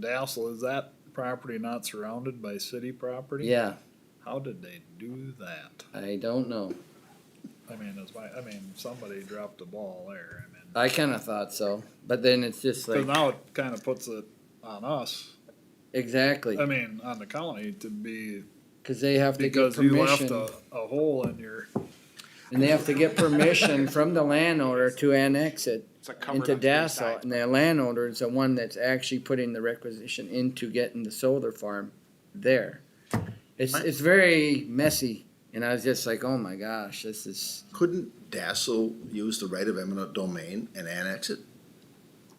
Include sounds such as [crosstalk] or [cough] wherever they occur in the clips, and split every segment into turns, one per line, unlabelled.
Dassel, is that property not surrounded by city property?
Yeah,
How did they do that?
I don't know.
I mean, it's my, I mean, somebody dropped the ball there, I mean.
I kinda thought so, but then it's just
Cause
like,
now it kinda puts it on us,
exactly,
I mean, on the county to be,
cause they have to get
because you left a,
permission.
a hole in your,
And they have to
[laughs]
get permission from the landowner to annex it
It's like covered
into
on three sides.
Dassel. And the landowner is the one that's actually putting the requisition into getting the solar farm there. It's, it's very messy, and I was just like, oh my gosh, this is,
Couldn't Dassel use the right of eminent domain and annex it?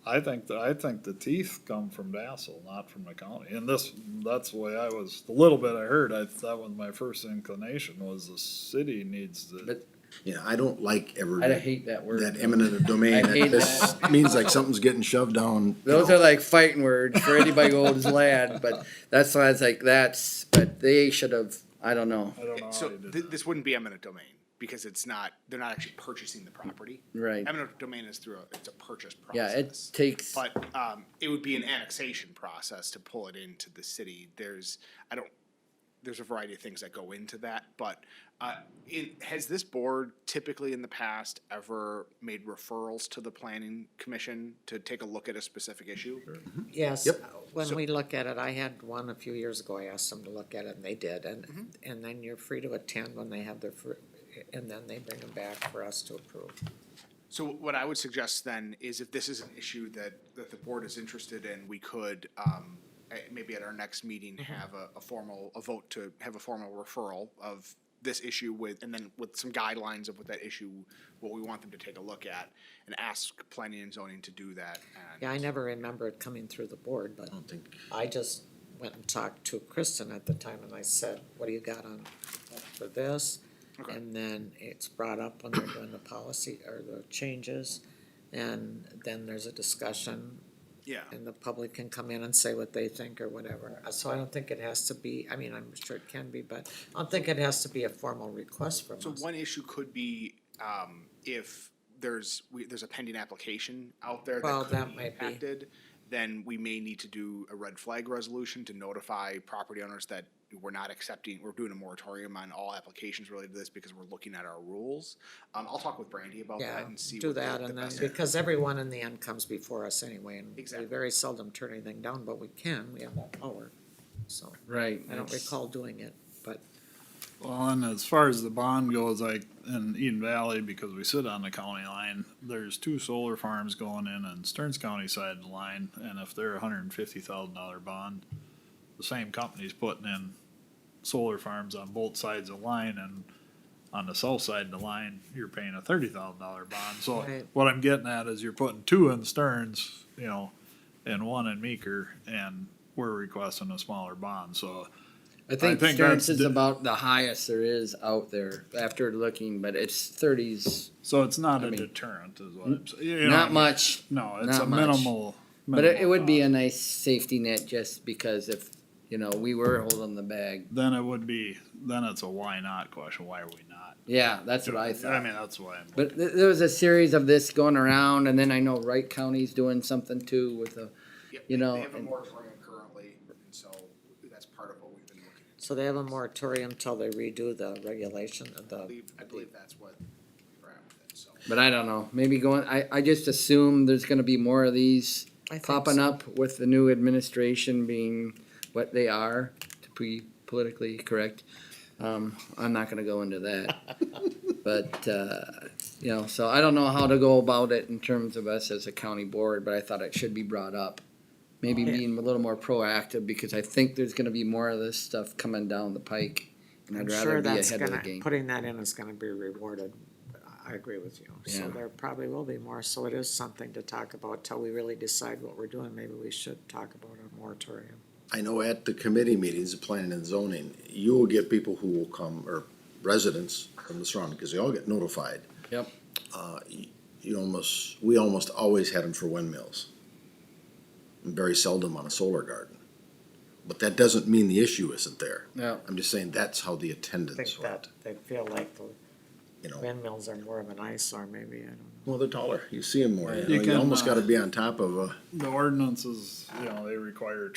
I think, that I think the teeth come from Dassel, not from the county, and this, that's the way I was, the little bit I heard, I, that was my first inclination, was the city needs to.
But-
You know, I don't like ever
I hate that word.
that eminent
[laughs]
domain.
I hate
This means like something's getting shoved down. you
Those
know.
are like fighting words for anybody old as lad, but that's why it's like that's. But they should have. I don't know.
I don't know how
So
you did
th-
that.
this wouldn't be eminent domain because it's not, they're not actually purchasing the property.
Right.
Eminent domain is through, a it's a purchase
Yeah, it
process.
takes.
But, um, it would be an annexation process to pull it into the city. There's, I don't, there's a variety of things that go into that, but, uh, it, has this board typically in the past ever made referrals to the planning commission to take a look at a specific issue?
Yes, uh,
Yep.
when we look at it, I had one a few years ago, I asked them to look at it and they did, and, and then you're free to attend when they have their, fir- and then they bring them back for us to approve.
So what I would suggest then is if this is an issue that, that the board is interested in, we could, um, eh, maybe at our next meeting,
Mm-hmm.
have a, a formal, a vote to have a formal referral of this issue with, and then with some guidelines of what that issue, what we want them to take a look at, and ask planning and zoning to do that. and-
Yeah, I never remember it coming through the board, but
I don't think-
I just went and talked to Kristen at the time and I said, what do you got on for this?
Okay.
And then it's brought up when they're doing the policy or the changes, and then there's a discussion
Yeah,
and the public can come in and say what they think or whatever. Uh, So I don't think it has to be, I mean, I'm sure it can be, but I don't think it has to be a formal request from
so
us.
one issue could be, um, if there's, we, there's a pending application out there
Well,
that
that
could be
might be.
impacted, then we may need to do a red flag resolution to notify property owners that we're not accepting, we're doing a moratorium on all applications related to this because we're looking at our rules. Um, I'll talk with Brandy about
Yeah,
that and see.
do
what the-
that
the
and then,
best-
because everyone in the end comes before us anyway, and we
Exactly.
very seldom turn anything down, but we can, we have that power. So,
Right.
I don't
it's-
recall doing it, but
Well, and as far as the bond goes, like in Eden Valley, because we sit on the county line, there's two solar farms going in on Stearns County side of the line, and if they're a hundred and fifty thousand dollar bond, the same company's putting in solar farms on both sides of the line, and on the south side of the line, you're paying a thirty thousand dollar bond, so
Right.
what I'm getting at is you're putting two in Stearns, you know, and one in Meeker, and we're requesting a smaller bond, so
I think,
think
Stearns
that's
is
the-
about the highest there is out there after looking, but it's thirties,
So it's not
I
a
mean-
deterrent, is what I'm saying. You know,
not much.
No, it's
not
a
much.
minimal.
But it,
minimal uh,
it would be
cost.
a nice safety net just because if you know we were holding the bag.
Then it would be. Then it's a why not question. Why are we not?
Yeah, that's what I thought.
I mean, that's why. I'm,
But th- there was a series of this going around, and then I know Wright County's doing something too with the.
Yep,
you know,
They have a
and-
moratorium currently, and so that's part of what we've been looking at.
So they have a moratorium till they redo the regulation,
I
the,
believe, I believe that's what we're at with it, so.
But I don't know. Maybe going. I, I just assume there's going to be more of these
I think
popping
so.
up with the new administration being what they are, to be politically correct. Um, I'm not going to go into
[laughs]
that. but, uh, you know, so I don't know how to go about it in terms of us as a county board, but I thought it should be brought up. Maybe
Yeah.
being a little more proactive because I think there's going to be more of this stuff coming down the pike. And
I'm
I'd rather
sure
be
that's
ahead of the
gonna,
game.
putting that in is gonna be rewarded. I agree with you.
Yeah.
So there probably will be more, so it is something to talk about till we really decide what we're doing. Maybe we should talk about a moratorium.
I know at the committee meetings, of planning and zoning, you will get people who will come, or residents from the surrounding, because they all get notified.
Yep.
Uh, you- You almost, we almost always had them for windmills. And very seldom on a solar garden. But that doesn't mean the issue isn't there.
Yeah.
I'm just saying that's how the
I think
attendance
that
went,
they feel like the
you know.
windmills are more of an eyesore, maybe, I don't know.
Well, they're taller. You see them more, you
You
know, you
can,
almost
uh,
gotta be on top of a.
the ordinances, you know, they require